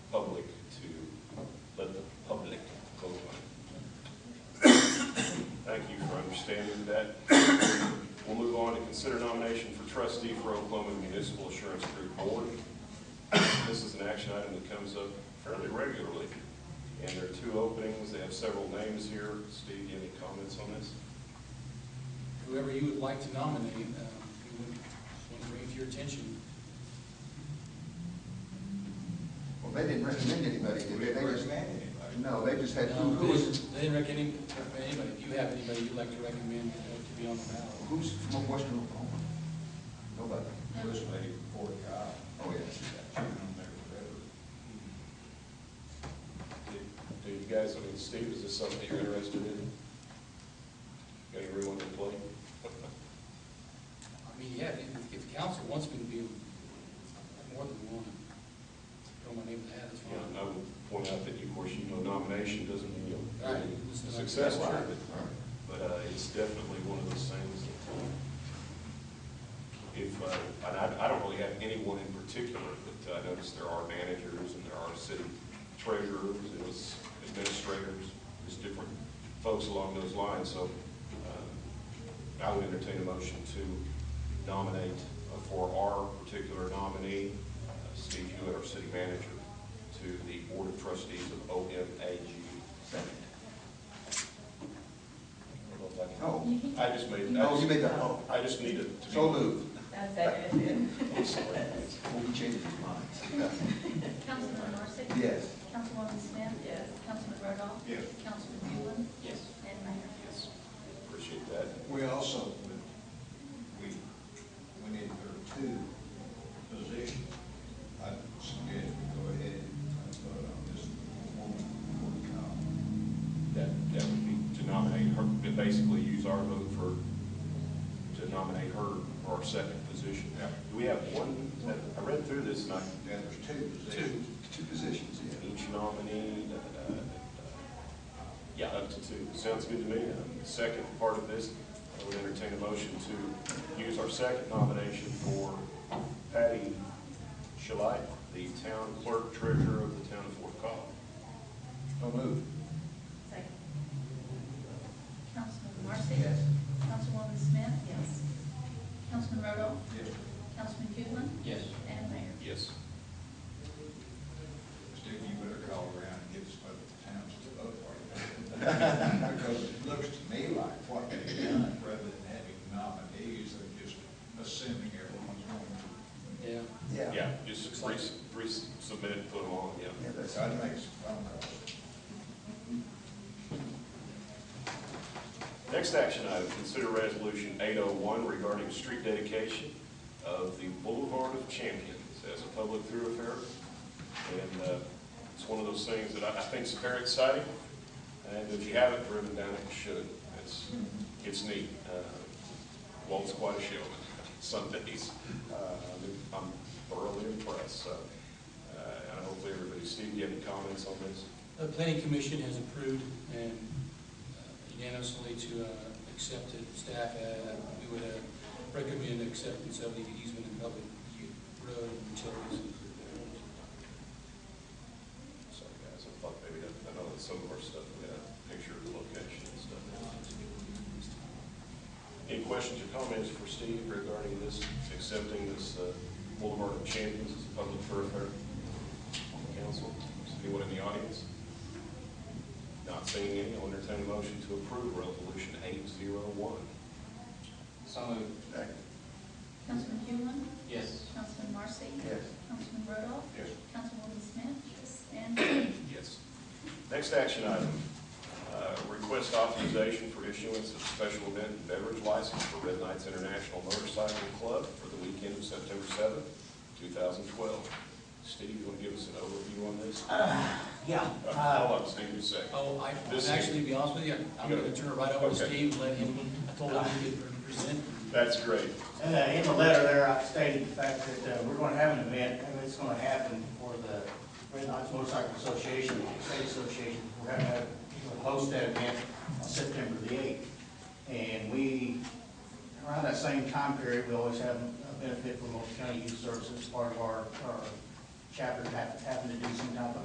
understanding that. We'll move on to consider nomination for trustee for Oklahoma Municipal Assurance Group Board. This is an action item that comes up fairly regularly, and there are two openings, they have several names here. Steve, you have any comments on this? Whoever you would like to nominate, uh, we would want to bring to your attention. Well, they didn't recommend anybody, did they? We didn't They just- recommend anybody. No, they just had, who No, who They was, didn't- they didn't recommend any- recommend anybody. If you have anybody you'd like to recommend uh, to be on the ballot. who's from Western Oklahoma? Nobody. This lady before God, Oh, yeah. she got children there forever. Do- Do you guys, I mean, Steve, is this something you're interested in? Got any room on the plate? I mean, yeah, if, if the council wants me to be more than one, throw my name in that, that's Yeah, and I fine. would point out that, of course, you know, nomination doesn't mean you'll Right. be successful, Right, but, right. but uh, it's definitely one of those things that uh, if, uh, and I, I don't really have anyone in particular, but I noticed there are managers and there are city treasurers, and there's administrators, there's different folks along those lines, so uh, I would entertain a motion to nominate uh, for our particular nominee, uh, Steve Hewitt, our city manager, to the Board of Trustees of OMAG. Second. I don't know if I can- Oh, I just made. I Oh, you just- made that, oh. I just needed to be. so moved. That's it. I'm sorry. Well, he changed his mind. Councilman Marcy? Yes. Councilwoman Smith? Yes. Councilman Rodoff? Yes. Councilman Hewland? Yes. And Mayor? Yes. Appreciate that. We also, we, we need there are two positions. I suggest we go ahead and vote on this woman before God. That, that would be to nominate her, to basically use our vote for, to nominate her for our second position. Yeah. Do we have one, I read through this and I, Yeah, there's two Two, positions. two positions, yeah. each nominee, uh, uh, yeah, up to two. Sounds good to me. Um, The second part of this, I would entertain a motion to use our second nomination for Patty Shalit, the town clerk treasurer of the town of Fort Collins. So moved. Second. Councilman Marcy? Yes. Councilwoman Smith? Yes. Councilman Rodoff? Yes, Councilman Hewland? Yes. And Mayor? Yes. Steve, you better call around and get some other towns to vote for you. Because it looks to me like what they've done, rather than having nominees, they're just assuming everyone's going to. Yeah. Yeah. Yeah, just re- resubmit, it, put them on, yeah. Yeah, that's, So I'd make some phone calls. Next action item, consider resolution eight oh one regarding street dedication of the Boulevard of Champions as a public thoroughfare. And uh, it's one of those things that I, I think is very exciting. And if you haven't driven down it, you should. It's, it's neat. Uh, Walt's quite a showman some days. Uh, I'm- I'm thoroughly impressed, so. uh, And hopefully everybody, Steve, you have any comments on this? The planning commission has approved and uh, unanimously to uh, accept it. Staff, uh, we would uh, recommend acceptance of the easement and public road and utilities. Sorry, guys, I thought maybe, that- I know that some of our stuff, we had a picture of the location and stuff. Any questions or comments for Steve regarding this, accepting this uh, Boulevard of Champions as a public thoroughfare on the council? Is Anyone in the audience? Not seeing any, I'll entertain a motion to approve Resolution 801. second. Councilman Hewland? Yes. Councilman Marcy? Yes. Councilman Rodoff? Yes. Councilwoman Smith? Yes. And Mayor? Yes. Next action item, uh, request authorization for issuance of special event and beverage license for Red Knights International Motorcycle Club for the weekend of September seventh, two thousand twelve. Steve, you want to give us an overview on this? Yeah. Uh, Hold on, Steve, just a second. Oh, I, This- actually, to be honest with you, I'm You got it. gonna turn it right over Okay. to Ah. Steve, let him, I told him he could present. That's great. Uh, In the letter there, I stated the fact that uh, we're going to have an event, and it's going to happen for the Red Knox Motorcycle Association, State Association. We're going to have, we're gonna host that event on September the 8th. And we, around that same time period, we always have a benefit from Multnomah County Youth Services, part of our our chapter hap- happened to do some type of